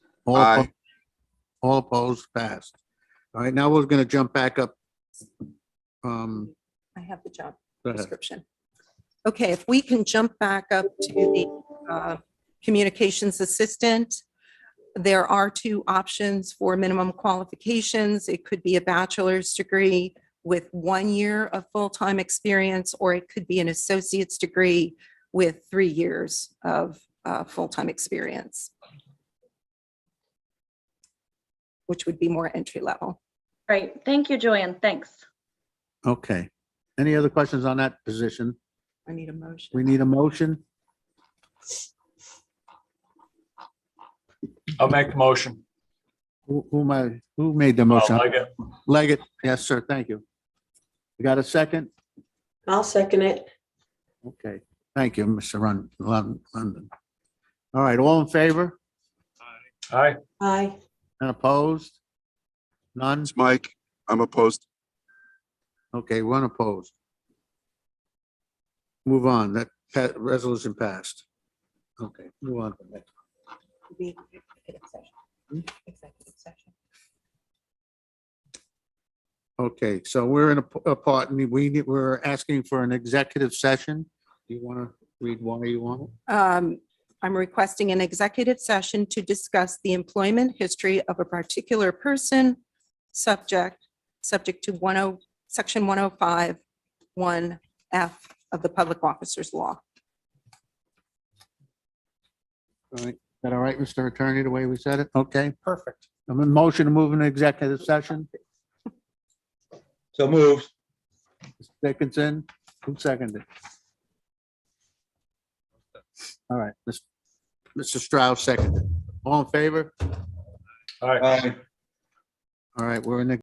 All Aye. opposed- All opposed, passed. All right, now we're going to jump back up. Um, I have the job go ahead. description. Okay, if we can jump back up to the uh, communications assistant. There are two options for minimum qualifications. It could be a bachelor's degree with one year of full-time experience, or it could be an associate's degree with three years of uh, full-time experience, which would be more entry level. Right. Thank you, Joanne. Thanks. okay. Any other questions on that position? I need a motion. We need a motion. I'll make the motion. Who, who am I- who made the I'll motion? make it. Leggett, yes, sir, thank you. You got a second? I'll second it. Okay, thank you, Mr. Run, Lon- London. All right, all in favor Aye. Aye. and opposed? None? It's Mike. I'm opposed. Okay, one opposed. Move on, that pa- resolution passed. Okay, move on. to the next. be executive session. Executive session. Okay, so we're in a p- a part, and we, need- we're asking for an executive session. Do you want to read why you want it? Um, I'm requesting an executive session to discuss the employment history of a particular person, subject, subject to 10, section 105, 1F of the Public Officers Law. All right, is that all right, Mr. Attorney, the way we said it? Okay, perfect. I'm in motion to move into executive session. So moved. Mr. Dickinson, who seconded? All right, Mr. Mr. Strauss seconded. All in favor? Aye. Aye. All right, we're in the